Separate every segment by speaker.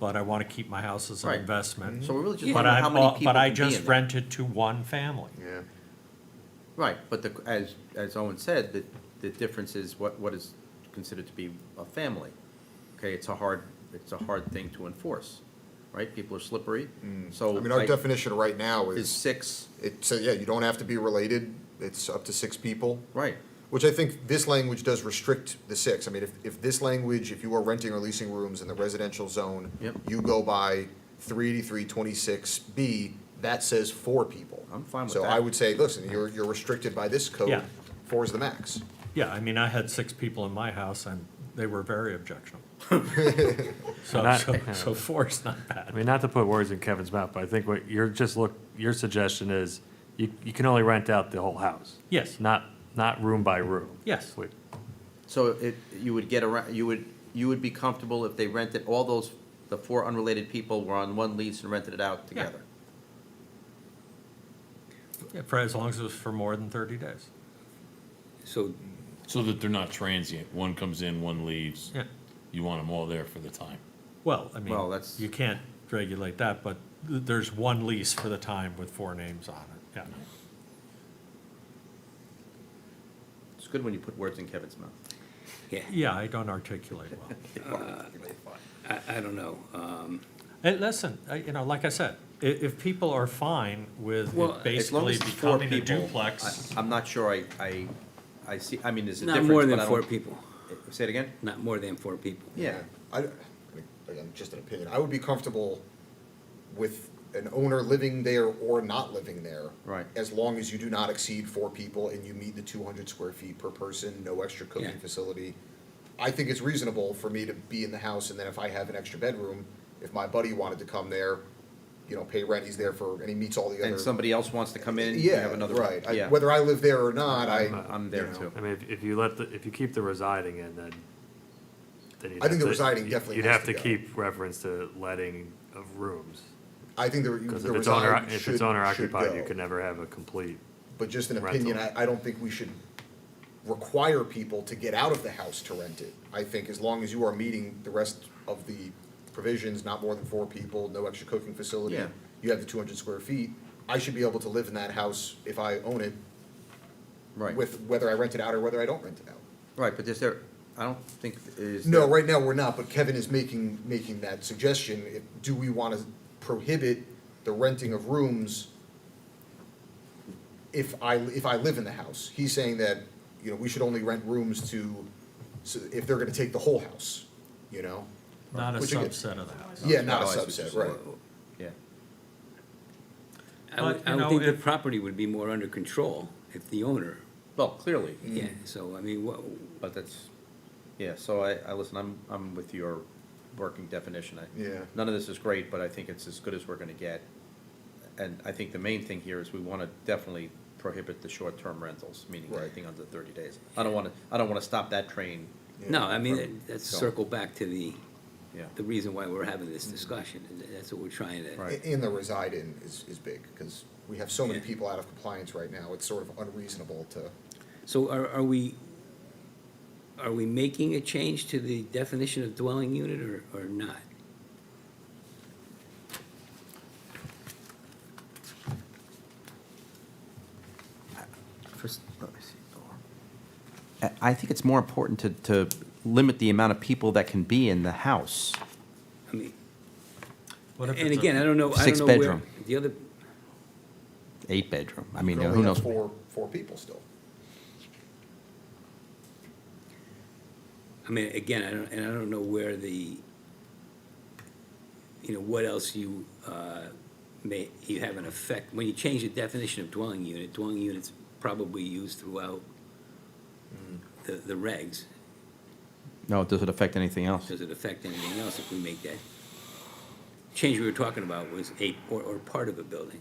Speaker 1: but I want to keep my house as an
Speaker 2: Right.
Speaker 3: Mm-hmm.
Speaker 2: Mm-hmm.
Speaker 1: investment.
Speaker 2: So we're really just
Speaker 1: But
Speaker 2: wondering
Speaker 1: I,
Speaker 2: how many
Speaker 1: bought-
Speaker 2: people
Speaker 1: but I
Speaker 2: could be in
Speaker 1: just
Speaker 2: there.
Speaker 1: rented to one family.
Speaker 3: Yeah.
Speaker 2: Right, but the, as, as Owen said, the, the difference is what, what is considered to be a family. Okay, it's a hard, it's a hard thing to enforce, right? People are slippery, so.
Speaker 3: Mm. I mean, our
Speaker 2: like,
Speaker 3: definition right now
Speaker 2: Is
Speaker 3: is,
Speaker 2: six,
Speaker 3: it, so, yeah, you don't have to be related, it's up to six people,
Speaker 2: right,
Speaker 3: which I think this language does restrict the six. I mean, if, if this language, if you are renting or leasing rooms in the residential zone,
Speaker 2: Yep.
Speaker 3: you go by three eighty-three twenty-six B, that says four people.
Speaker 2: I'm fine with
Speaker 3: So
Speaker 2: that.
Speaker 3: I would say, listen, you're, you're restricted by this code,
Speaker 1: Yeah.
Speaker 3: four is the max.
Speaker 1: Yeah, I mean, I had six people in my house and they were very objectionable. So,
Speaker 4: Not-
Speaker 1: so, so four's not
Speaker 4: I
Speaker 1: bad.
Speaker 4: mean, not to put words in Kevin's mouth, but I think what you're just look, your suggestion is you, you can only rent out the whole house.
Speaker 1: Yes.
Speaker 4: Not, not room by room.
Speaker 1: Yes.
Speaker 4: Wait,
Speaker 2: so it, you would get around, you would, you would be comfortable if they rented, all those, the four unrelated people were on one lease and rented it out
Speaker 1: Yeah.
Speaker 2: together.
Speaker 1: Yeah, For as long as it was for more than thirty days.
Speaker 5: So,
Speaker 6: So that they're not transient, one comes in, one leaves,
Speaker 1: Yeah.
Speaker 6: you want them all there for the time.
Speaker 1: Well, I
Speaker 2: Well,
Speaker 1: mean,
Speaker 2: that's-
Speaker 1: you can't regulate that, but th- there's one lease for the time with four names on it, yeah.
Speaker 2: It's good when you put words in Kevin's mouth.
Speaker 5: yeah,
Speaker 1: Yeah, I don't articulate well. Uh,
Speaker 5: I, I don't know. um,
Speaker 1: Hey, listen, I- you know, like I said, i- if people are fine with
Speaker 5: Well,
Speaker 1: it
Speaker 5: as long
Speaker 2: As long
Speaker 1: basically
Speaker 2: as it's four
Speaker 1: becoming a
Speaker 2: people,
Speaker 1: duplex,
Speaker 2: I- I'm not sure I, I, I see, I mean, there's a
Speaker 5: Not
Speaker 2: difference,
Speaker 5: more
Speaker 2: but
Speaker 5: than
Speaker 2: I
Speaker 5: four
Speaker 2: don't-
Speaker 5: people,
Speaker 2: Say it again?
Speaker 5: not more than four people.
Speaker 2: Yeah,
Speaker 3: I, I mean, again, just an opinion, I would be comfortable with an owner living there or not living there.
Speaker 2: Right.
Speaker 3: As long as you do not exceed four people and you meet the two hundred square feet per person, no extra cooking
Speaker 5: Yeah.
Speaker 3: facility. I think it's reasonable for me to be in the house and then if I have an extra bedroom, if my buddy wanted to come there, you know, pay rent, he's there for, and he meets all the other.
Speaker 2: and somebody else wants to come in and you
Speaker 3: Yeah,
Speaker 2: have another.
Speaker 3: right, I-
Speaker 2: Yeah.
Speaker 3: whether I live there or not, I.
Speaker 4: Uh-huh.
Speaker 2: I'm
Speaker 3: you
Speaker 2: there
Speaker 3: know,
Speaker 2: too.
Speaker 4: I mean, if, if uh, you let the, if you keep the residing in, then, then you'd
Speaker 3: I think
Speaker 4: have
Speaker 3: the
Speaker 4: to-
Speaker 3: residing
Speaker 4: you-
Speaker 3: definitely
Speaker 4: You'd
Speaker 3: has
Speaker 4: have
Speaker 3: to
Speaker 4: to
Speaker 3: go.
Speaker 4: keep reference to letting of rooms.
Speaker 3: I think the,
Speaker 4: Because
Speaker 3: the
Speaker 4: if it's owner,
Speaker 3: reside
Speaker 4: if
Speaker 3: should,
Speaker 4: it's owner
Speaker 3: should
Speaker 4: occupied, you
Speaker 3: go.
Speaker 4: can never have a complete,
Speaker 3: but just an
Speaker 4: Rental.
Speaker 3: opinion, I, I don't think we should require people to get out of the house to rent it. I think as long as you are meeting the rest of the provisions, not more than four people, no extra cooking facility,
Speaker 2: Yeah.
Speaker 3: you have the two hundred square feet, I should be able to live in that house if I own it,
Speaker 2: Right,
Speaker 3: with whether I rent it out or whether I don't rent it out.
Speaker 2: right, but is there, I don't think, is.
Speaker 3: No,
Speaker 2: there-
Speaker 3: right now, we're not, but Kevin is making, making that suggestion. If- Do we want to prohibit the renting of rooms if I, if I live in the house? He's saying that, you know, we should only rent rooms to, so if they're going to take the whole house, you know?
Speaker 1: not a
Speaker 3: Which again-
Speaker 1: subset of the house.
Speaker 3: Yeah, not a
Speaker 2: Oh, I see what you're
Speaker 3: subset,
Speaker 2: saying.
Speaker 3: right.
Speaker 2: Yeah,
Speaker 5: I would,
Speaker 1: But, you
Speaker 5: I would
Speaker 1: know,
Speaker 5: think the
Speaker 1: if-
Speaker 5: property would be more under control if the owner,
Speaker 2: well, clearly,
Speaker 5: yeah, so, I mean, what,
Speaker 2: but that's, yeah, so I, I listen, I'm, I'm with your working definition. I-
Speaker 3: Yeah.
Speaker 2: None of this is great, but I think it's as good as we're gonna get. And I think the main thing here is we wanna definitely prohibit the short-term rentals, meaning
Speaker 3: Right.
Speaker 2: anything under thirty days. I don't wanna, I don't wanna stop that train,
Speaker 5: no, I mean, that- that's
Speaker 2: So-
Speaker 5: circle back to the,
Speaker 2: yeah.
Speaker 5: the reason why we're having this discussion, and that's what we're trying to.
Speaker 2: Right.
Speaker 3: And the reside in is, is big, because we have so many
Speaker 5: Yeah.
Speaker 3: people out of compliance right now. It's sort of unreasonable to,
Speaker 5: So are, are we, are we making a change to the definition of dwelling unit or, or not?
Speaker 2: First, let me see. I- I think it's more important to, to limit the amount of people that can be in the house.
Speaker 5: I mean,
Speaker 1: What if
Speaker 5: and
Speaker 1: it's a-
Speaker 5: again, I don't know, I don't
Speaker 2: Six
Speaker 5: know where,
Speaker 2: bedroom.
Speaker 5: the other,
Speaker 2: Eight bedroom, I mean,
Speaker 3: you
Speaker 2: who
Speaker 3: only have
Speaker 2: knows?
Speaker 3: four, four people still.
Speaker 5: I mean, again, I don't, and I don't know where the, you know, what else you, uh, may, you have an effect, when you change the definition of dwelling unit, dwelling unit's probably used throughout the, the regs,
Speaker 2: No, does it affect anything else?
Speaker 5: does it affect anything else if we make that? Change we were talking about was a, or, or part of a building.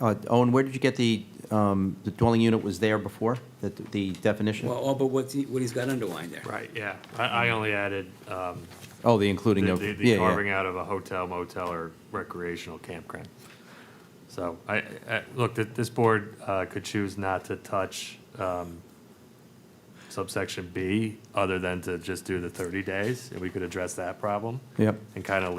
Speaker 2: Uh, Owen, where did you get the, um, the dwelling unit was there before, the, the definition?
Speaker 5: Well, all but what's, he- what he's got underlined there.
Speaker 4: right, yeah. I, I only added, um,
Speaker 2: Oh, the including
Speaker 4: the-
Speaker 2: of,
Speaker 4: the-
Speaker 2: yeah,
Speaker 4: The carving
Speaker 2: yeah.
Speaker 4: out of a hotel, motel, or recreational campground. So I, I, look, th- this board uh, could choose not to touch um, subsection B, other than to just do the 30 days, and we could address that problem
Speaker 2: Yep.
Speaker 4: and kind of